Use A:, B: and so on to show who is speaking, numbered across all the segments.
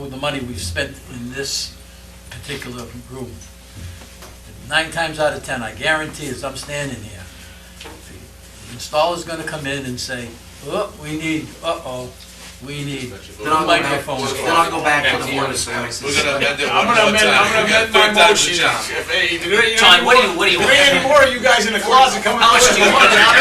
A: with the money we've spent in this particular room. Nine times out of 10, I guarantee as I'm standing here, the installer's gonna come in and say, oh, we need, uh-oh, we need
B: Then I'll go back-
A: microphones.
B: Then I'll go back to the
C: Microphone.
B: board of services.
C: We're gonna amend it one
D: I'm
C: more
D: gonna
C: time.
D: amend, I'm gonna
C: We got
D: amend my
C: third time's the
D: motion.
C: charm.
D: If, hey, you do it, you
B: John,
D: know,
B: what do you, what do you
D: If we
B: want?
D: any more, you guys in the closet coming.
B: How much do you want, John?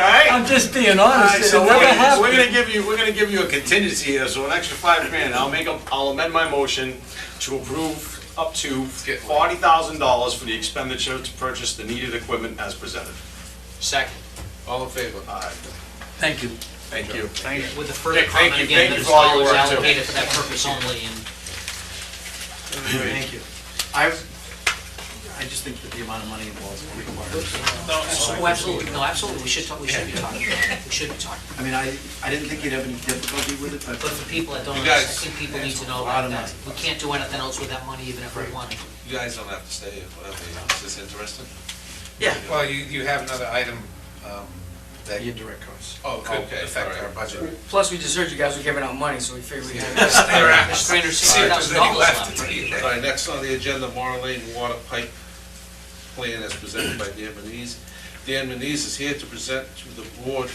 D: Alright?
A: I'm just being honest,
D: So
A: it
D: we're
A: never
D: gonna, we're gonna
A: happened.
D: give you, we're gonna give you a contingency here, so an extra five grand, I'll make a, I'll amend my motion to approve up to
C: Get one.
D: forty thousand dollars for the expenditure to purchase the needed equipment as presented. Second.
C: All in favor?
D: Alright,
A: Thank you.
D: thank you.
B: With the further
D: Dick, thank
B: comment
D: you,
B: again,
D: thank you
B: that it's
D: for all your work,
B: dollars
D: too.
B: allocated for that purpose only and.
E: Thank you. I, I just think that the amount of money involved is required.
B: Oh, absolutely, no, absolutely, we should talk, we should be talking, about it. we should be talking.
E: I mean, I, I didn't think you'd have any difficulty with it,
B: But
E: but
B: for people that don't
C: You
B: understand, I
C: guys-
B: think people need to know
E: Lot
B: about
E: of
B: that. We can't do anything else with that money even if we wanted.
C: You guys don't have to stay, if whatever, you know, is this interesting?
F: Well, you, you have another item um, that
E: The
F: indirect costs.
C: Oh, good. Okay,
F: Affect
C: all
F: our
C: right.
F: budget.
G: Plus, we just heard you guys were giving out money, so we figured we'd.
B: There's three hundred
F: See
B: sixty
F: if there's
B: thousand
F: any
B: dollars
F: left.
B: left.
C: All right, next on the agenda, Mara Lane Water Pipe Plan as presented by Dan Manise. Dan Manise is here to present to the board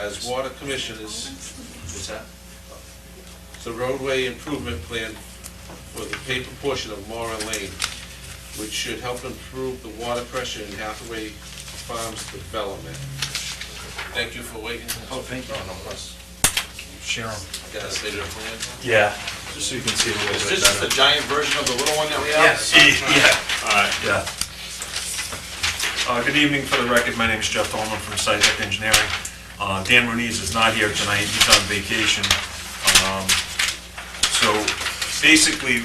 C: as water commissioners. What's that? The roadway improvement plan for the paper portion of Mara Lane, which should help improve the water pressure in Hathaway Farms development. Thank you for waiting. Oh, thank you.
E: share them.
C: Got a state of plan?
H: Yeah, just so you can see a little
D: Is
H: bit
D: this just a
H: better.
D: giant version of the little one that we have?
H: Yes. Yeah, yeah. Uh, Good evening, for the record, my name is Jeff Dolman from SciTech Engineering. Uh, Dan Muniz is not here tonight, he's on vacation. Um, So basically,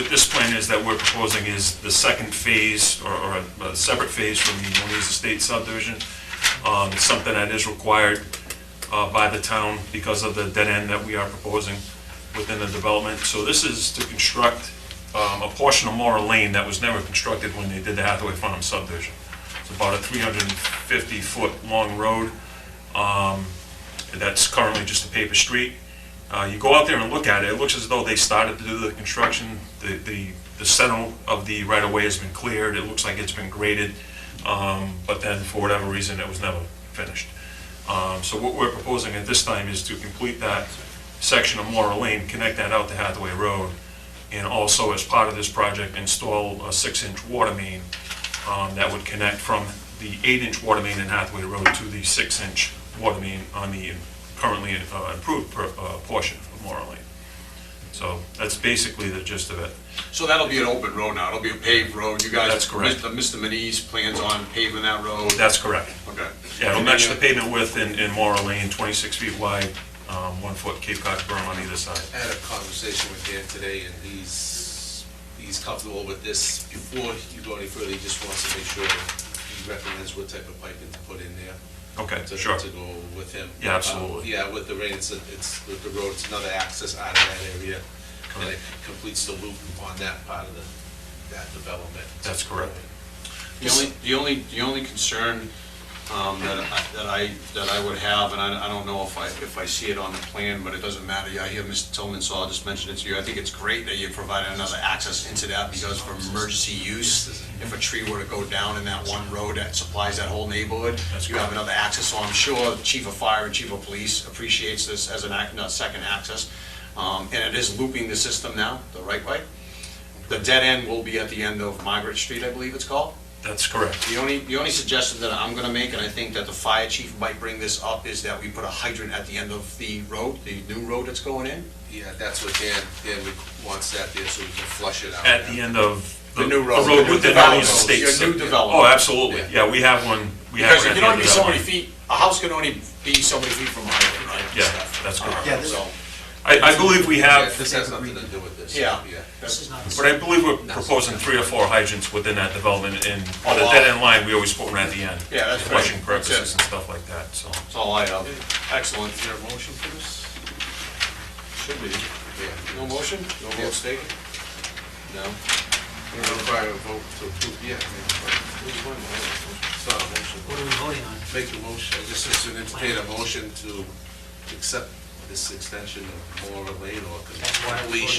H: what this plan is that we're proposing is the second phase, or- or a- a separate phase from the Muniz Estate subdivision. Um, It's something that is required uh, by the town because of the dead end that we are proposing within the development. So this is to construct um, a portion of Mora Lane that was never constructed when they did the Hathaway Farm subdivision. It's about a 350-foot-long road um, that's currently just a paper street. Uh, You go out there and look at it, it looks as though they started to do the construction. The- The the center of the right-of-way has been cleared, it looks like it's been graded, um, but then for whatever reason, it was never finished. Um, So what we're proposing at this time is to complete that section of Laurel Lane, connect that out to Hathaway Road, and also as part of this project, install a six-inch water main um, that would connect from the eight-inch water main in Hathaway Road to the six-inch water main on the currently uh, improved per- uh, portion of Laurel Lane. So that's basically the gist of it.
D: Uh, So that'll be an open road now, it'll be a paved road, you guys.
H: That's correct.
D: Mr. Manise plans on paving that road.
H: That's correct.
D: Okay.
H: Yeah, it'll match the pavement width in in Laurel Lane, 26 feet wide, um, one foot Cape Cod berm on either side.
C: I had a conversation with Dan today, and he's, he's comfortable with this. Before you go any further, he just wants to make sure he recommends what type of piping to put in there
H: Okay,
C: to,
H: sure.
C: to go with him.
H: Yeah, absolutely.
C: Um, Yeah, with the rain, it's, it's, with the road, it's another access out of that area, and it completes the loop on that part of the, that development.
H: That's correct.
D: The only, the only, the only concern um, that I, that I, that I would have, and I I don't know if I, if I see it on the plan, but it doesn't matter, Yeah, I hear Mr. Tillman, so I'll just mention it to you, I think it's great that you provided another access into that, because for emergency use, if a tree were to go down in that one road that supplies that whole neighborhood,
H: That's
D: you have another access, so I'm sure the Chief of Fire and Chief of Police appreciates this as an, act- no, second access. Um, And it is looping the system now, the right way. The dead end will be at the end of Margaret Street, I believe it's called.
H: That's correct.
D: The only, the only suggestion that I'm gonna make, and I think that the fire chief might bring this up, is that we put a hydrant at the end of the road, the new road that's going in.
C: Yeah, that's what Dan, Dan wants that there, so we can flush it out.
H: At the end of
D: The new road.
H: The road with the
D: Development.
H: Valley's State.
D: Your new development.
H: Oh, absolutely. Yeah, we have one. We have
D: Because
H: one
D: you can
H: at the end
D: only be
H: of that
D: so many
H: line.
D: feet, a house can only be so many feet from a hydrant, right? and
H: Yeah,
D: stuff.
H: that's
D: Uh,
H: correct.
E: Yeah, this-
D: So,
H: I, I believe we
C: Yeah,
H: have,
C: this has nothing to do with this.
D: Yeah.
B: This is not.
H: but I believe we're proposing three or four hydrants within that development and on the dead end line, we always put one at the end.
D: Yeah, that's
H: for
D: right.
H: Flushing
D: That's
H: purposes
D: it.
H: and stuff like that, so.
D: that's all Oh, I have. Excellent.
C: Is there a motion for this?
D: Should be.
C: Yeah.
D: No motion? No
C: Yeah.
D: vote taken? No.
C: We're gonna require a vote to approve, yeah. I mean, It's not a motion.
B: What are we voting on?
C: Make a motion, I just need to entertain a motion to accept this extension of Laura Lane or
B: That's why we-
C: completion.